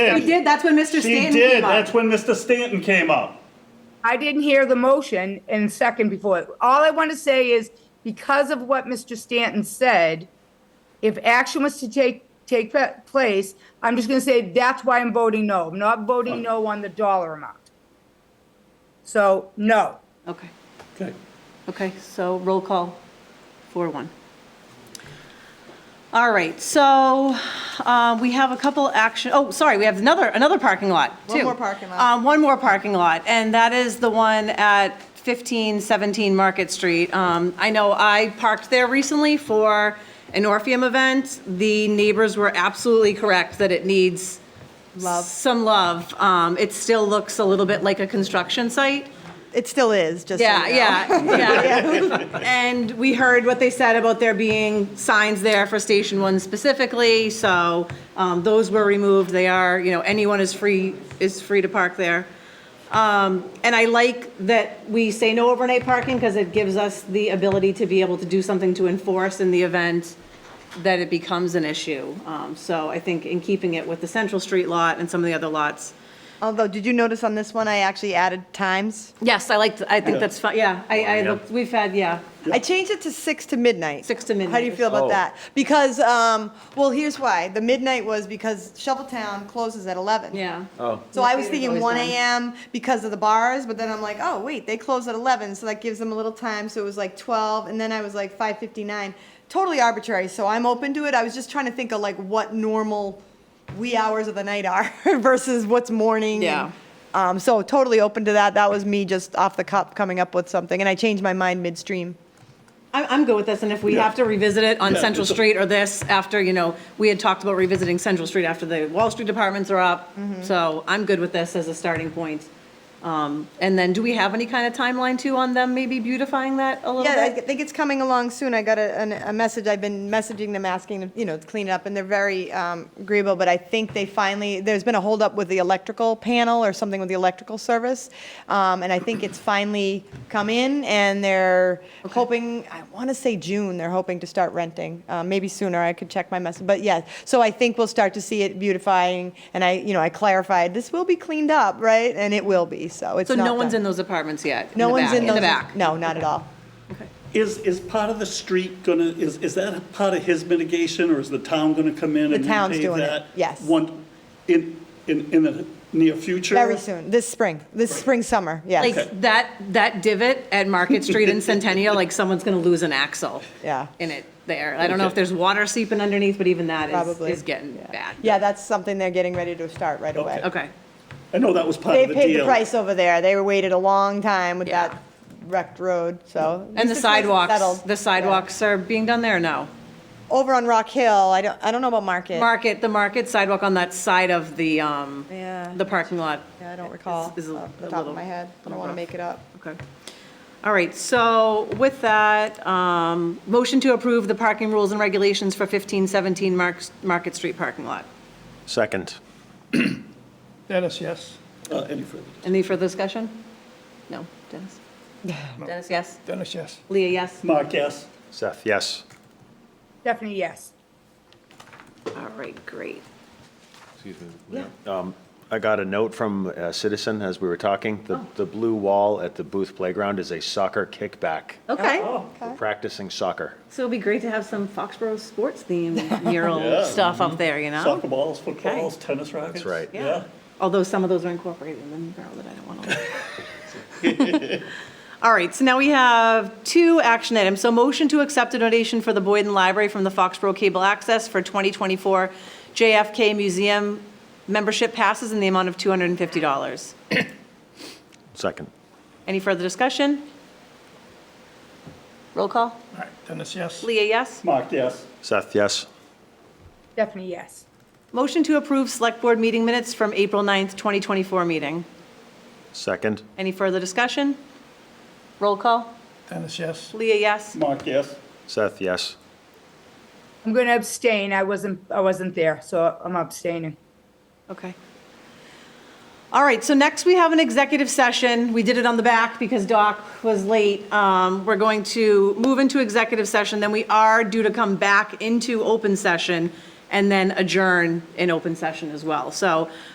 He did, that's when Mr. She Stanton came did. up. That's when Mr. Stanton came up. I didn't hear the motion and second before. it. All I want to say is, because of what Mr. Stanton said, if action was to take, take pe- place, I'm just going to say that's why I'm voting no. I'm not voting no on the dollar amount. So, no. Okay, Okay. okay, so roll call, four one. All right, so uh, we have a couple action, oh, sorry, we have another, another parking lot, too. One more parking lot. Um, One more parking lot, and that is the one at 1517 Market Street. Um, I know I parked there recently for an Orpheum event. The neighbors were absolutely correct that it needs Love. some love. Um, It still looks a little bit like a construction site. It still is, just so you Yeah, know. yeah, yeah. And we heard what they said about there being signs there for Station One specifically, so um, those were removed. They are, you know, anyone is free, is free to park there. Um, And I like that we say no overnight parking because it gives us the ability to be able to do something to enforce in the event that it becomes an issue. Um, So I think in keeping it with the Central Street lot and some of the other lots. Although, did you notice on this one, I actually added times? Yes, I liked, I think that's, fine. yeah, I, I, Yeah. looked- we've had, yeah. I changed it to six to midnight. Six to How do you midnight. feel about Oh. that? Because, um, well, here's why. The midnight was because Shoveltown closes at 11. Yeah. Oh, So I was Theater's thinking always 1 done. a.m. because of the bars, but then I'm like, oh, wait, they close at 11, so that gives them a little time. So it was like 12, and then I was like 5:59. Totally arbitrary. So I'm open to it. I was just trying to think of like what normal wee hours of the night are versus what's morning. Yeah. Um, so totally open to that. That was me just off the cuff coming up with something, and I changed my mind midstream. I'm, I'm good with this, and if we have to revisit it on Yeah. Central Street or this after, you know, we had talked about revisiting Central Street after the Wall Street apartments are up, Mm-hmm. so I'm good with this as a starting point. Um, And then, do we have any kind of timeline too on them maybe beautifying that a little Yeah, I bit? think it's coming along soon. I got a, an- a message, I've been messaging them, asking them, you know, to clean it up, and they're very um, agreeable, but I think they finally, there's been a holdup with the electrical panel or something with the electrical service, um, and I think it's finally come in, and they're hoping, I want to say June, they're hoping to start renting, Uh, maybe sooner, I could check my message, but yeah, so I think we'll start to see it beautifying, and I, you know, I clarified, this will be cleaned up, right? And it will be, so it's So not no one's in done. those apartments yet? No the one's back- in those. the back? No, not at all. Is, is part of the street gonna, is, is that a part of his mitigation, or is the town gonna come in The and town's repave doing it, that? yes. One, in, in, in the near future? Very soon, this spring, this spring, summer, yes. Like, that, that divot at Market Street and Centennial, like, someone's gonna lose an axle. Yeah. In it there. I don't know if there's water seeping underneath, but even that is, Probably. is getting bad. Yeah, that's something they're getting ready to start right away. Okay. I know that was part They of the deal. paid the price over there, they waited a long time with Yeah. that wrecked road, so. at And the least it's nice sidewalks, settled. the sidewalks are being done there or no? Over on Rock Hill, I don't, I don't know about Market. Market, the market sidewalk on that side of the, um, Yeah. the parking lot. Yeah, I don't recall off Is- is a- the a top little- of my head, I don't little want to rough. make it up. Okay. All right, so with that, um, motion to approve the parking rules and regulations for 1517 Marks- Market Street parking lot. second. Dennis, yes. Uh, Any further? Any further discussion? No, Dennis? Dennis, yes? Dennis, yes. Leah, yes? Mark, yes? Seth, yes. Stephanie, yes. All right, great. Um, I got a note from a citizen as we were talking. The, the blue wall at the Booth Playground is a soccer kickback. Oh. Okay, We're Practicing soccer. so it'd be great to have some Foxborough sports themed mural Yeah. stuff up there, you know? Soccer balls, footballs, tennis rackets? right. Yeah. Although some of those are incorporated in the barrel that I don't want to. All right, so now we have two action items. So motion to accept a donation for the Boyden Library from the Foxborough Cable Access for 2024 JFK Museum membership passes in the amount of $250. Second. Any further discussion? Roll call. All right, Dennis, yes. Leah, yes? Mark, yes? Seth, yes. Stephanie, yes. Motion to approve Select Board meeting minutes from April 9th, 2024 meeting. Second. Any further discussion? Roll call. Dennis, yes. Leah, yes? Mark, yes? Seth, yes. I'm going to abstain. I wasn't, I wasn't there, so I'm abstaining. Okay. All right, so next we have an executive session. We did it on the back because Doc was late. Um, We're going to move into executive session, then we are due to come back into open session and then adjourn in open session as well. So